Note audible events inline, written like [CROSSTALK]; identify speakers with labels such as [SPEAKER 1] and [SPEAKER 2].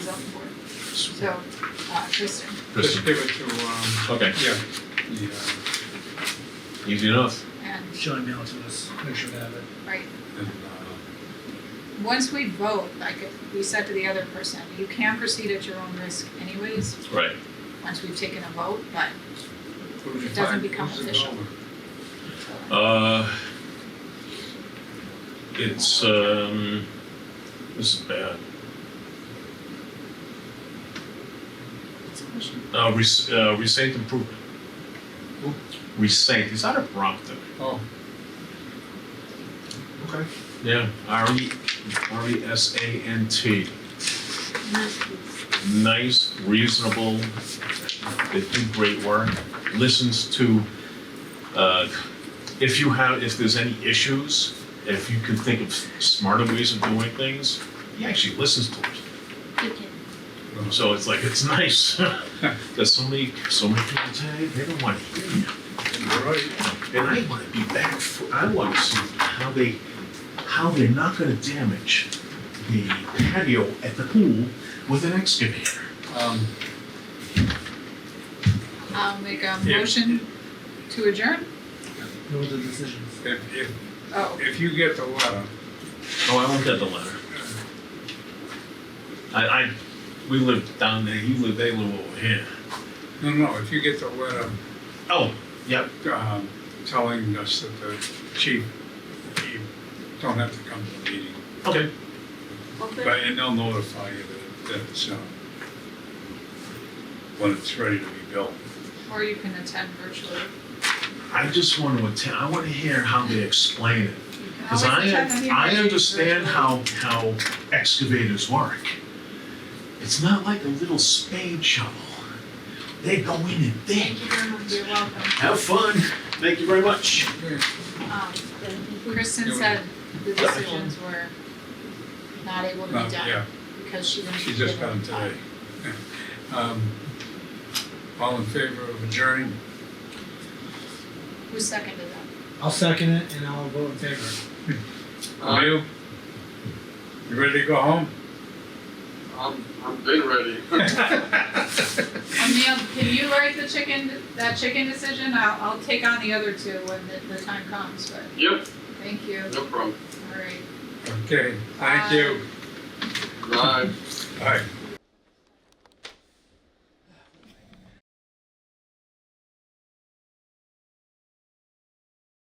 [SPEAKER 1] So, uh, Kristen,
[SPEAKER 2] Just
[SPEAKER 3] Kristen,
[SPEAKER 2] give it to, um,
[SPEAKER 3] okay,
[SPEAKER 2] yeah, the, uh,
[SPEAKER 3] easy enough.
[SPEAKER 1] and,
[SPEAKER 4] John mail to us, make sure we have it.
[SPEAKER 1] right,
[SPEAKER 2] and, uh,
[SPEAKER 1] once we vote, like if we said to the other person, you can proceed at your own risk anyways,
[SPEAKER 3] Right.
[SPEAKER 1] once we've taken a vote, but
[SPEAKER 2] what did you
[SPEAKER 1] It doesn't
[SPEAKER 2] find?
[SPEAKER 1] become
[SPEAKER 2] Who's the
[SPEAKER 1] official.
[SPEAKER 2] donor?
[SPEAKER 3] Uh, it's, um, this is bad.
[SPEAKER 1] it's a question.
[SPEAKER 3] Uh, Res- uh, Resent Improvement.
[SPEAKER 2] Who?
[SPEAKER 3] Resent, it's out of Brompton.
[SPEAKER 2] Oh. Okay.
[SPEAKER 3] Yeah, R E, R E S A N T. Nice, reasonable, they do great work, listens to, uh, if you have, if there's any issues, if you can think of smarter ways of doing things, he actually listens to it. So it's like, it's [LAUGHS] nice. There's so many, so many people today, they don't want to hear you. And I want to be back. For, I want to see how they, how they're not going to damage the patio at the pool with an excavator.
[SPEAKER 2] Um,
[SPEAKER 1] I'll um, make a
[SPEAKER 2] Yeah.
[SPEAKER 1] motion to adjourn?
[SPEAKER 4] Know the decisions.
[SPEAKER 2] if, if,
[SPEAKER 1] Oh,
[SPEAKER 2] if you get the letter,
[SPEAKER 3] Oh, I won't get the letter. I, I, we live down there. You live. They live over here.
[SPEAKER 2] no, no, if you get the letter,
[SPEAKER 3] Oh, yep.
[SPEAKER 2] um, telling us that the chief, he don't have to come to the meeting,
[SPEAKER 3] Okay.
[SPEAKER 1] open,
[SPEAKER 2] but, and they'll notify you that, that it's, um, when it's ready to be built.
[SPEAKER 1] or you can attend virtually.
[SPEAKER 3] I just want to attend. I want to hear how they explain it
[SPEAKER 1] You can
[SPEAKER 3] because I,
[SPEAKER 1] always attend the
[SPEAKER 3] I
[SPEAKER 1] meeting
[SPEAKER 3] understand
[SPEAKER 1] virtually.
[SPEAKER 3] how how excavators work. It's not like a little spade shovel. They go in and dig.
[SPEAKER 1] Thank you very much, you're welcome.
[SPEAKER 3] Have fun. Thank you very much.
[SPEAKER 1] Um, Kristen said the decisions were not able to
[SPEAKER 2] Uh,
[SPEAKER 1] be done
[SPEAKER 2] yeah,
[SPEAKER 1] because she didn't.
[SPEAKER 2] she just
[SPEAKER 1] give
[SPEAKER 2] got
[SPEAKER 1] them
[SPEAKER 2] him today. [LAUGHS] Um, All in favor of adjourning?
[SPEAKER 1] time. Who seconded that?
[SPEAKER 4] I'll second it and I'll vote in favor.
[SPEAKER 2] Are you? You ready to go home?
[SPEAKER 5] I'm, I'm getting ready. [LAUGHS]
[SPEAKER 1] O'Neill, Um, can you write the chicken, that chicken decision? I'll, I'll take on the other two when the, the time comes, but
[SPEAKER 5] Yep,
[SPEAKER 1] thank you,
[SPEAKER 5] no problem.
[SPEAKER 1] all right.
[SPEAKER 2] Okay, thank you.
[SPEAKER 5] Bye.
[SPEAKER 2] Bye.